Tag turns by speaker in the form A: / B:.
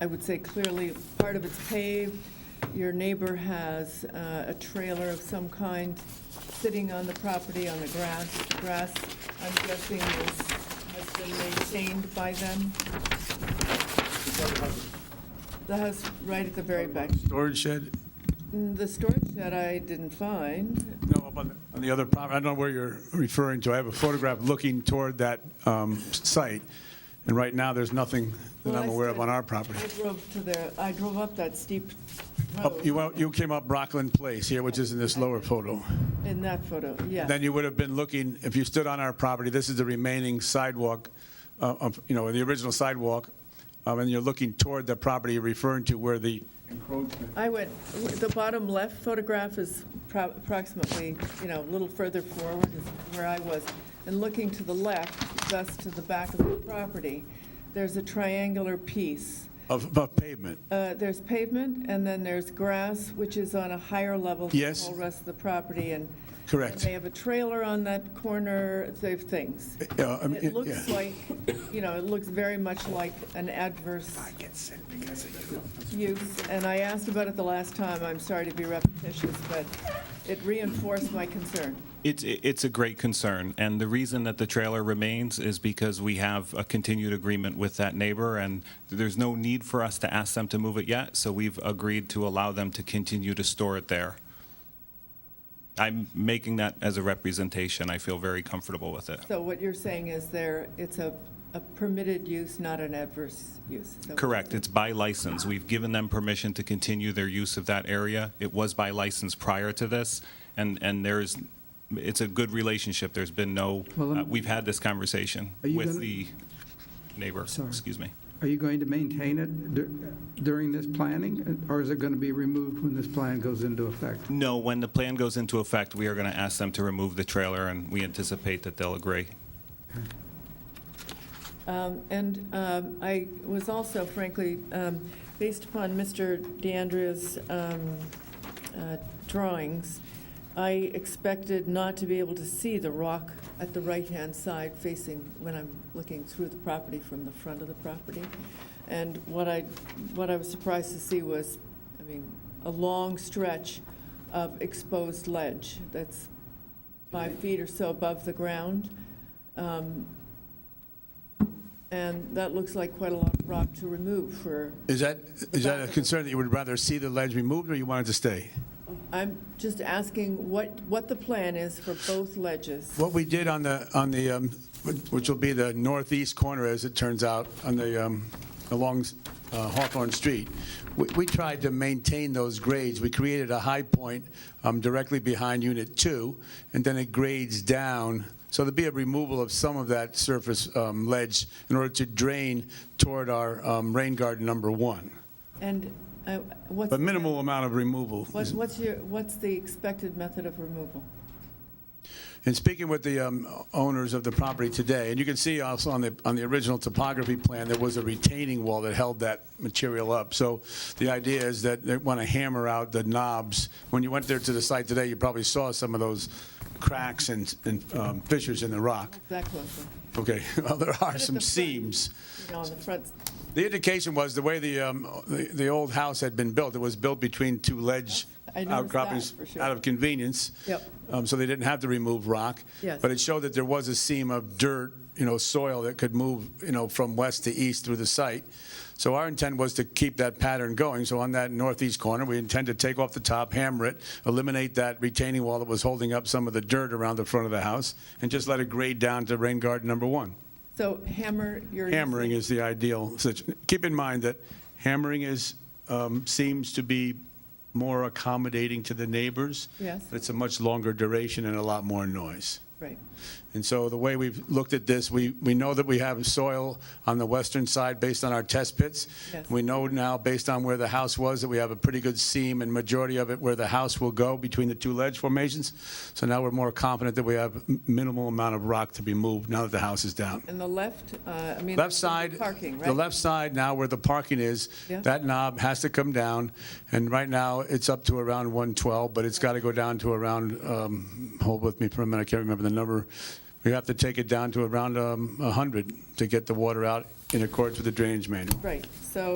A: I would say clearly, part of it's paved. Your neighbor has uh, a trailer of some kind sitting on the property on the grass. The Grass, I'm guessing, is, has been maintained by them. The house right at the very back.
B: Storage shed,
A: Mm, The storage shed I didn't find.
B: no, up on the- on the other property, I don't know where you're referring to. I have a photograph looking toward that um, site, and right now, there's nothing that
A: Well,
B: I'm
A: I
B: aware of
A: stood-
B: on our property.
A: I drove to there, I drove up that steep
B: Up- Oh, You
A: road
B: went- you came up Rockland Place here, which is in this lower photo.
A: in that photo, yeah.
B: Then you would have been looking, if you stood on our property, this is the remaining sidewalk, uh, of- you know, the original sidewalk, um, and you're looking toward the property you're referring to where the encroachment
A: I went, the bottom left photograph is pro- approximately, you know, a little further forward is where I was. And looking to the left, thus to the back of the property, there's a triangular piece.
B: of of pavement.
A: Uh, There's pavement, and then there's grass, which is on a higher level than the
B: Yes.
A: whole rest of the property, and
B: Correct.
A: they have a trailer on that corner, they have things.
B: Yeah, I mean,
A: It looks
B: Eh, yeah.
A: like, you know, it looks very much like an adverse use, and I asked about it the last time, I'm sorry to be repetitious, but it reinforced my concern.
C: It's, it's a great concern, and the reason that the trailer remains is because we have a continued agreement with that neighbor, and there's no need for us to ask them to move it yet, so we've agreed to allow them to continue to store it there. I'm making that as a representation. I feel very comfortable with it.
A: So what you're saying is there, it's a a permitted use, not an adverse use? So-
C: Correct, it's by license. We've given them permission to continue their use of that area. It was by license prior to this, and, and there's, it's a good relationship. There's been no,
D: Well, let me-
C: uh, we've had this conversation
D: Are you
C: with
D: gonna-
C: the neighbor, excuse me.
D: Are you going to maintain it dur- during this planning, or is it going to be removed when this plan goes into effect?
C: No, when the plan goes into effect, we are going to ask them to remove the trailer, and we anticipate that they'll agree.
A: Um, And um, I was also frankly, um, based upon Mr. DeAndrea's um, uh, drawings, I expected not to be able to see the rock at the right-hand side facing, when I'm looking through the property from the front of the property. And what I, what I was surprised to see was, I mean, a long stretch of exposed ledge that's five feet or so above the ground. Um, And that looks like quite a lot of rock to remove for,
B: Is that, is
A: back
B: that a
A: of the-
B: concern that you would rather see the ledge removed, or you want it to stay?
A: I'm just asking what, what the plan is for both ledges.
B: What we did on the, on the, um, which will be the northeast corner, as it turns out, on the, um, along uh, Hawthorne Street, we- we tried to maintain those grades. We created a high point um, directly behind Unit 2, and then it grades down. So there'd be a removal of some of that surface um, ledge in order to drain toward our um, rain garden number one.
A: And uh, what's.
B: But minimal amount of removal.
A: What- What's your, what's the expected method of removal?
B: In speaking with the um, owners of the property today, and you can see also on the, on the original topography plan, there was a retaining wall that held that material up. So the idea is that they want to hammer out the knobs. When you went there to the site today, you probably saw some of those cracks and and, um, fissures in the rock.
A: That closely,
B: Okay, well, there are
A: at
B: some
A: the front-
B: seams.
A: you know, on the front,
B: The indication was the way the, um, the, the old house had been built, it was built between two ledge
A: I noticed
B: outcroppings
A: that, for sure.
B: out of convenience.
A: Yep.
B: Um, so they didn't have to remove rock.
A: Yes.
B: But it showed that there was a seam of dirt, you know, soil that could move, you know, from west to east through the site. So our intent was to keep that pattern going. So on that northeast corner, we intend to take off the top, hammer it, eliminate that retaining wall that was holding up some of the dirt around the front of the house, and just let it grade down to rain garden number one.
A: so hammer your.
B: Hammering is the ideal. situ- Keep in mind that hammering is, um, seems to be more accommodating to the neighbors.
A: Yes.
B: But It's a much longer duration and a lot more noise.
A: Right,
B: And so the way we've looked at this, we, we know that we have soil on the western side based on our test pits.
A: Yes.
B: We know now, based on where the house was, that we have a pretty good seam and majority of it where the house will go between the two ledge formations. So now we're more confident that we have m- minimal amount of rock to be moved now that the house is down.
A: and the left, uh, I mean.
B: Left side,
A: Parking, right?
B: the left side now where the parking is,
A: Yeah.
B: that knob has to come down, and right now, it's up to around 112, but it's got to go down to around, um, hold with me for a minute, I can't remember the number. We have to take it down to around um, 100 to get the water out in accordance with the drainage manual.
A: Right, so